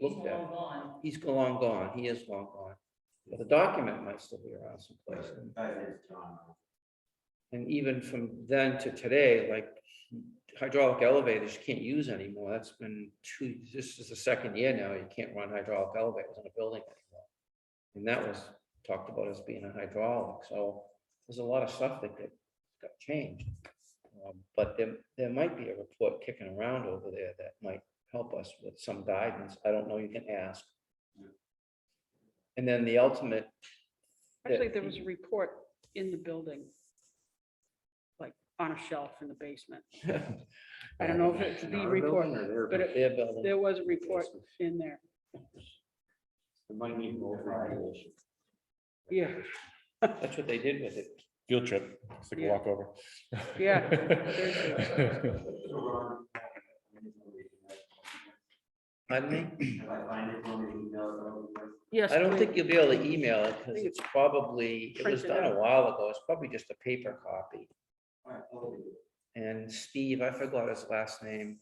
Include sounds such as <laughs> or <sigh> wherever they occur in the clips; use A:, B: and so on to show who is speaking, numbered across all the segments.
A: looked at.
B: gone.
A: He's long gone. He is long gone. But the document might still be around someplace. And even from then to today, like hydraulic elevators, you can't use anymore. That's been two, this is the second year now. You can't run hydraulic elevators in a building anymore. And that was talked about as being a hydraulic. So there's a lot of stuff that got, got changed. Um, But there, there might be a report kicking around over there that might help us with some guidance. I don't know, you can ask. And then the ultimate. <laughs>
C: Actually, there was a report in the building. Like on a shelf in the basement. I don't know if it's the report, but it-
A: Their building.
C: there was a report in there.
A: It might need more regulation.
C: Yeah,
A: That's what they did with it.
D: Field trip, it's like a
C: Yeah.
D: walk over.
C: Yeah.
D: <laughs>
A: Pardon me? <laughs>
C: yes.
A: I don't
C: please.
A: think you'll be able to email it because
C: think
A: it's probably, it was
C: printed
A: done a
C: out.
A: while ago. It's probably just a paper copy. And Steve, I forgot his last name.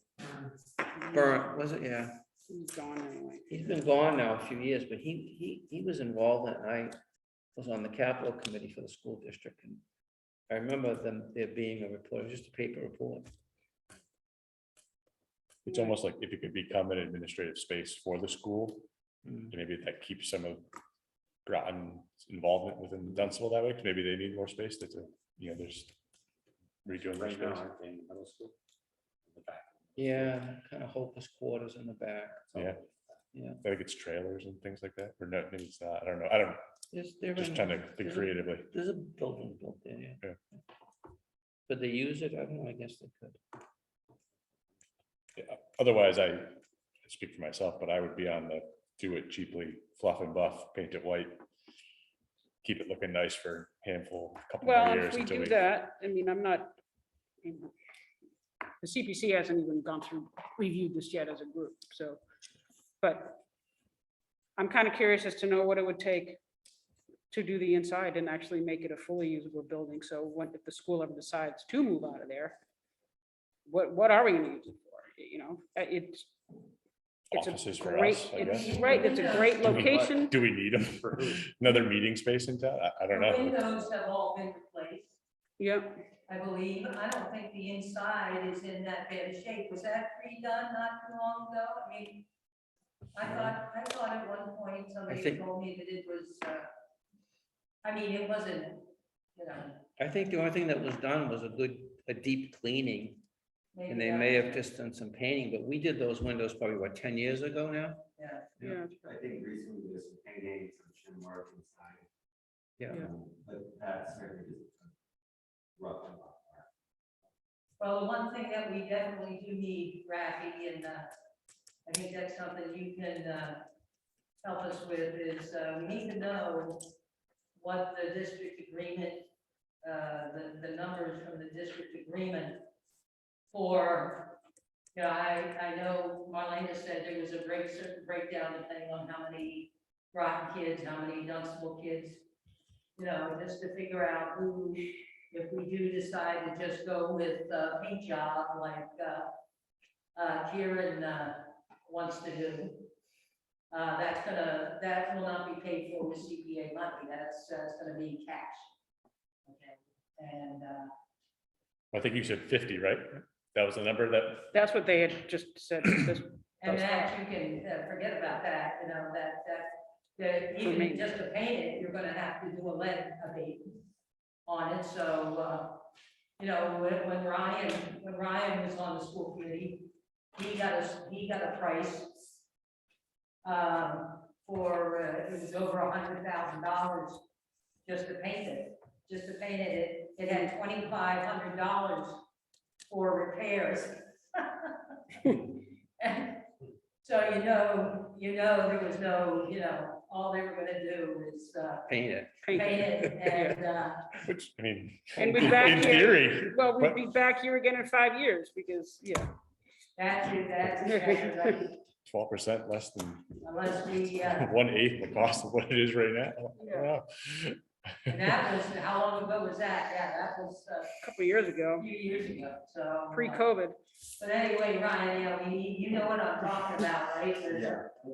A: Burnt, was it? Yeah.
C: He's Gone anyway.
A: He's been gone now a few years, but he, he, he was involved and I was on the capital committee for the school district. and I remember them, there being a report, just a paper report.
D: It's almost like if it could become an administrative space for the school,
A: Mm.
D: maybe that keeps some of Groton's involvement within Dunstable that way, 'cause maybe they need more space, that's, a- you know, there's redoing their space.
A: Yeah, kind of hopeless quarters in the back.
D: Yeah.
A: Yeah.
D: I think it's trailers and things like that, or no, maybe it's not, I don't know, I don't,
A: There's, there
D: just
A: in-
D: trying to think
A: there's a-
D: creatively.
A: There's a building built there, yeah.
D: Yeah.
A: Could they use it? I don't know, I guess they could.
D: Otherwise, I speak for myself, but I would be on the do it cheaply, fluff and buff, paint it white. Keep it looking nice for a handful, couple
C: Well,
D: more
C: if
D: years
C: we
D: until
C: do
D: we.
C: that, I mean, I'm not. you know, The CPC hasn't even gone through, reviewed this yet as a group, so, but I'm kind of curious as to know what it would take to do the inside and actually make it a fully usable building. So what if the school ever decides to move out of there? What, what are we gonna use it for? You know, uh, it's. it's a
D: Offices for
C: great-
D: us, I
C: it's-
D: guess.
C: Right, it's a great
D: Do we-
C: location.
D: Do we need them for another meeting space in town? I, I
B: The
D: don't know.
B: Windows have all been replaced,
C: Yeah,
B: I believe. I don't think the inside is in that bad a shape. Was that redone not too long ago? I mean, I thought, I thought at one point somebody
A: Mm. think-
B: told me that it was, uh, I mean, it wasn't, you know,
A: I think the only thing that was done was a good, a deep cleaning,
B: maybe.
A: and they
B: that-
A: may have just done some painting, but we did those windows probably, what, ten years ago now?
B: Yeah.
C: yeah.
E: I think recently there's some painting, some shim work inside.
A: Yeah.
C: Yeah.
E: um, But that certainly is rough and rough.
B: Well, the one thing that we definitely do need, Rafi, and uh, I think that's something you can uh, help us with, is uh, we need to know what the district agreement, uh, the, the numbers from the district agreement for, you know, I, I know Marlena said there was a break, certain breakdown depending on how many Groton kids, how many Dunstable kids, you know, just to figure out who if we do decide to just go with uh paint job like uh, uh, Kieran uh, wants to do, uh, that's gonna, that will not be paid for with CPA money, that's, that's gonna be cash. Okay, and, uh,
D: I think you said fifty, right? That was the number that,
C: That's what they had just said, this
B: and
C: That's
B: that, you can uh, forget about that, you know, that, that, that
C: For
B: even
C: me.
B: just to paint it, you're gonna have to do a lead abatement on it, so, uh, you know, when, when Ryan, when Ryan was on the school committee, he got a, he got a price um, for, uh, it was over a hundred thousand dollars just to paint it, just to paint it, it, it had twenty-five hundred dollars for repairs. <laughs> And So you know, you know, there was no, you know, all they were gonna do is, uh,
A: <laughs> Paint it.
C: paint.
B: paint it and, uh,
D: which, I mean,
C: And we're back
D: in
C: here.
D: theory,
C: Well, we'd
D: What?
C: be back here again in five years because, yeah,
B: that's it, that's it, that's it,
D: twelve percent less than <laughs>
B: unless we, uh,
D: one eighth the cost of what it is right now. I don't know.
B: and that was, how long ago was that? Yeah, that was uh,
C: a couple of years
B: a
C: ago,
B: few years ago, so. uh,
C: pre-COVID.
B: But anyway, Ryan, yeah, we, you know what I'm talking about, right? There's-
E: Yeah.